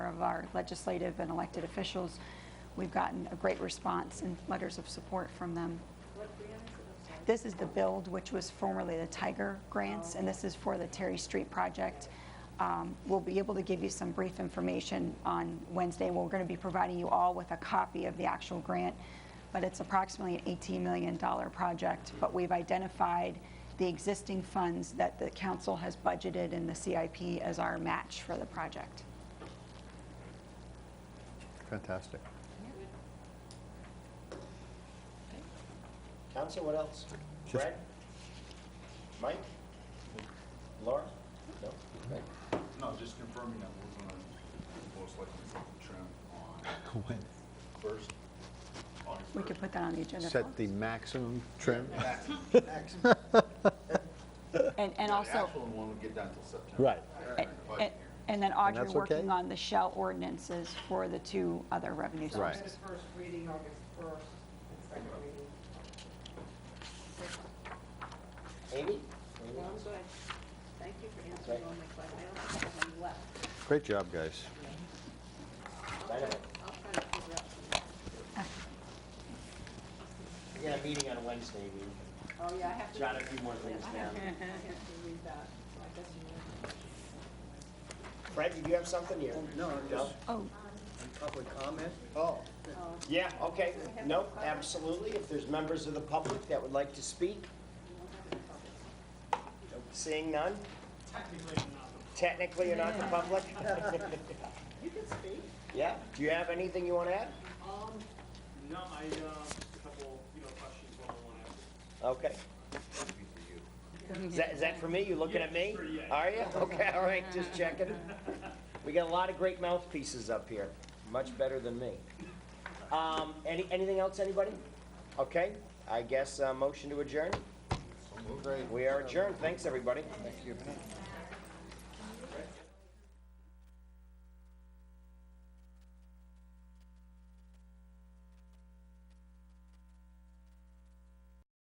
of our legislative and elected officials. We've gotten a great response and letters of support from them. This is the build, which was formerly the Tiger Grants, and this is for the Terry Street project. Um, We'll be able to give you some brief information on Wednesday. We're going to be providing you all with a copy of the actual grant, but it's approximately an $18 million project. But we've identified the existing funds that the council has budgeted in the CIP as our match for the project. Fantastic. Council, what else? Just- Brad? Mike? Laura? No? Right. No, just confirming that we're gonna most likely trim on When? first, August We could put that on the agenda. Set the maximum trim? And and The also, actual one would get done till September. Right. Right, budget and- hearing. and then Audrey that's okay? working on the shell ordinances for the two other revenue Right. sources. Instead of first reading, August first, and second reading. Amy? Well, I'm good. Thank you for answering all my questions. I don't think I have any left. Great job, guys. Dynamite. I'll try to figure out some. We got a meeting on Wednesday, we can Oh, yeah, I have to. jot a few more things I down. have to- I have to read that, so I guess you know. Fred, did you have something here? Um, No, I'm just Oh, public comment. Oh. Yeah, okay. No, absolutely. If there's members of the public that would like to speak? Seeing none? Technically, you're not the public? You can speak. Yeah? Do you have anything you want to add? Um, no, I, uh, just a couple, you know, questions one on one after. Okay. Is that, is that for me? You looking at me? Yeah, sure, yeah. Are you? Okay, all right, just checking. We got a lot of great mouthpieces up here, much better than me. Um, any, anything else, anybody? Okay, I guess, uh, motion to adjourn? We are adjourned. Thanks, everybody.